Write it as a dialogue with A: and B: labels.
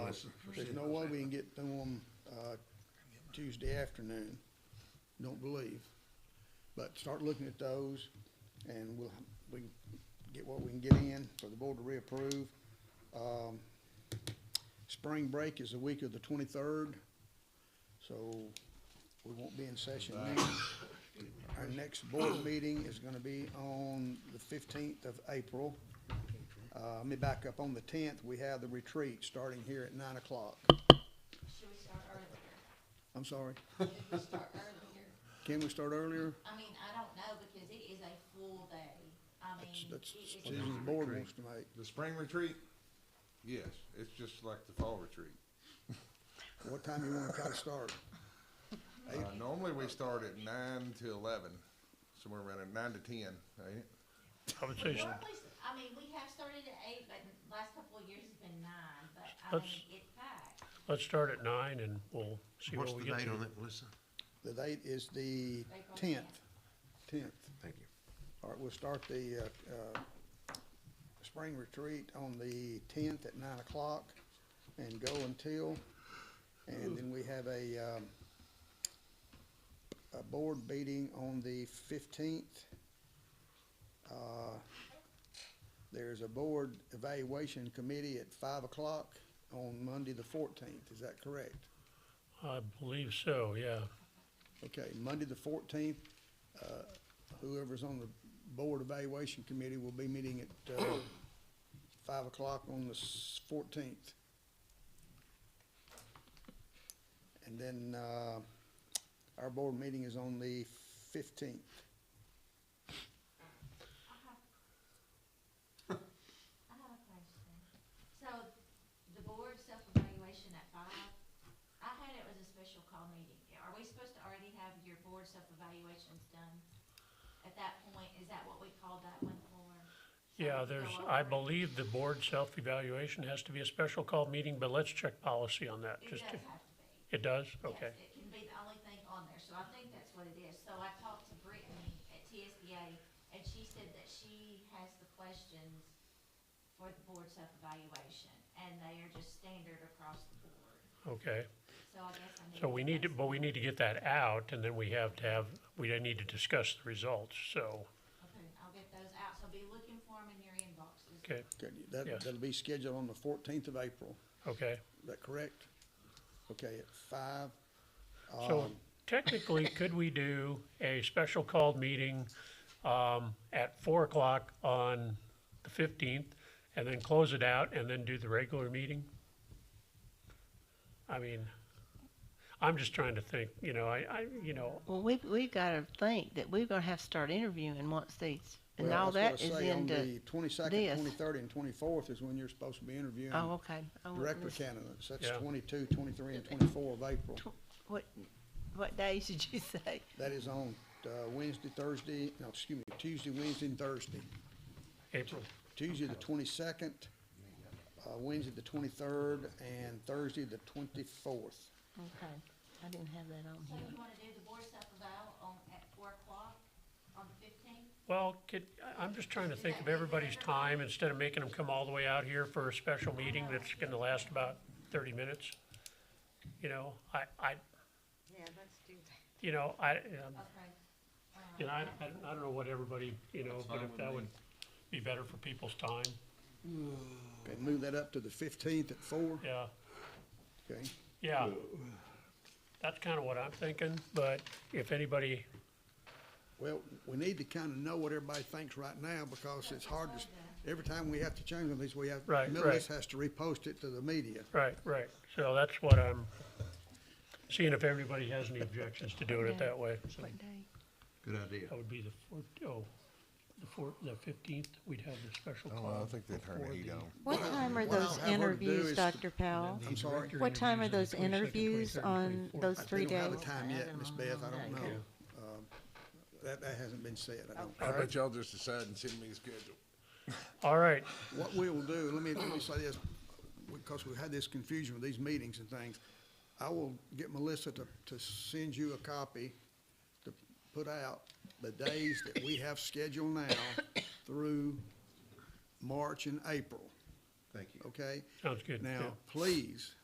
A: That's for
B: There's
A: sure.
B: no way we can get to them, uh, Tuesday afternoon, don't believe. But start looking at those, and we'll, we can get what we can get in for the board to reapprove. Um, spring break is the week of the twenty-third, so we won't be in session then. Our next board meeting is gonna be on the fifteenth of April. Uh, let me back up, on the tenth, we have the retreat starting here at nine o'clock.
C: Should we start earlier?
B: I'm sorry,
C: Should we start earlier?
B: can we start earlier?
C: I mean, I don't know because it is a full day. I
B: That's,
C: mean, it
B: that's
C: is.
B: decision the board wants to make.
D: The spring retreat? Yes, it's just like the fall retreat.
B: What time you wanna try to start?
D: Uh, normally we start at nine to eleven, somewhere around at nine to ten, ain't it?
E: Conversation.
C: Well, at least- I mean, we have started at eight, but in the last couple of years it's been nine, but I
E: Let's-
C: mean, it's packed.
E: Let's start at nine and we'll see
A: What's
E: what
A: the
E: we get
A: date
E: to.
A: on that, Melissa?
B: The date is the
C: April
B: tenth, tenth.
A: Thank you.
B: All right, we'll start the, uh, uh, spring retreat on the tenth at nine o'clock and go until, and then we have a, um, a board meeting on the fifteenth. Uh, there's a board evaluation committee at five o'clock on Monday the fourteenth, is that correct?
E: I believe so, yeah.
B: Okay, Monday the fourteenth, uh, whoever's on the board evaluation committee will be meeting at uh, five o'clock on the fourteenth. And then uh, our board meeting is on the fifteenth.
C: I have a question. So the board self-evaluation at five, I had it was a special call meeting. Are we supposed to already have your board self-evaluations done at that point? Is that what we called that one for? So we
E: Yeah,
C: could
E: there's,
C: go
E: I
C: over it?
E: believe the board self-evaluation has to be a special call meeting, but let's check policy on that.
C: It does
E: Just, to-
C: have to be.
E: it does? Okay.
C: Yes, it can be the only thing on there, so I think that's what it is. So I talked to Brittany at TSBA, and she said that she has the questions for the board self-evaluation, and they are just standard across the board.
E: Okay.
C: So I guess I need.
E: So we need to, but we need to get that out and then we have to have, we then need to discuss the results, so,
C: Okay, I'll get those out, so be looking for them in your inboxes.
E: okay,
B: Okay, That,
E: Yes.
B: that'll be scheduled on the fourteenth of April,
E: okay.
B: is that correct? Okay, at five.
E: So
B: um,
E: technically, could we do a special called meeting um, at four o'clock on the fifteenth and then close it out and then do the regular meeting? I mean, I'm just trying to think, you know, I, I, you know,
F: Well, we've, we've got to think that we're going to have to start interviewing once these, and
B: well,
F: all
B: that's
F: that
B: what I
F: is
B: say, On the
F: into,
B: twenty-second,
F: this.
B: twenty-third, and twenty-fourth is when you're supposed to be interviewing
F: oh, okay. I wouldn't
B: um, director
F: listen.
B: candidates. That's
E: Yeah.
B: 22, 23, and twenty-four of April.
F: What, what days did you say?
B: That is on uh, Wednesday, Thursday, no, excuse me, Tuesday, Wednesday, and Thursday.
E: April,
B: Tuesday, the twenty-second, uh, Wednesday, the twenty-third, and Thursday, the twenty-fourth.
F: Okay, I didn't have that on
C: So you
F: here.
C: wanna do the board self-eval on, at four o'clock on the fifteenth?
E: well, could, I- I'm just trying to think of everybody's time instead of making them come all the way out here for a special meeting that's gonna last about thirty minutes. You know, I, I,
G: Yeah, let's do that.
E: you know, I, um,
C: Okay.
E: And I, I don't- I don't know what everybody, you know, but if that would be better for people's time,
B: Okay, move that up to the fifteenth at four,
E: yeah,
B: okay?
E: yeah. That's kind of what I'm thinking, but if anybody,
B: Well, we need to kind of know what everybody thinks right now, because it's hard to, every time we have to change one of these, we have,
E: Right,
B: Millis
E: right.
B: has to repost it to the media.
E: right, right, so that's what I'm, seeing if everybody has any objections to doing it that way. So
F: What day?
A: Good idea.
E: That would be the four, oh, the four, the fifteenth, we'd have the special
D: Well, Oh, I
E: call.
D: think they turn the heat on.
G: What time are
B: What I'll
G: those
B: have her do
G: interviews,
B: is to-
G: Dr. Powell?
B: I'm sorry,
G: What time are those interviews on those
B: I-
G: three
B: They don't
G: days?
B: have a time yet, Ms. Beth, I don't know.
F: Okay.
B: Um, That, that hasn't been said, I
G: Oh.
B: don't.
D: I bet y'all just decide and send me the schedule.
E: All right,
B: What we will do, let me, let me say this, because we had this confusion with these meetings and things. I will get Melissa to, to send you a copy to put out the days that we have scheduled now through March and April,
A: Thank you.
B: okay?
E: sounds good. yeah.
B: Now, please,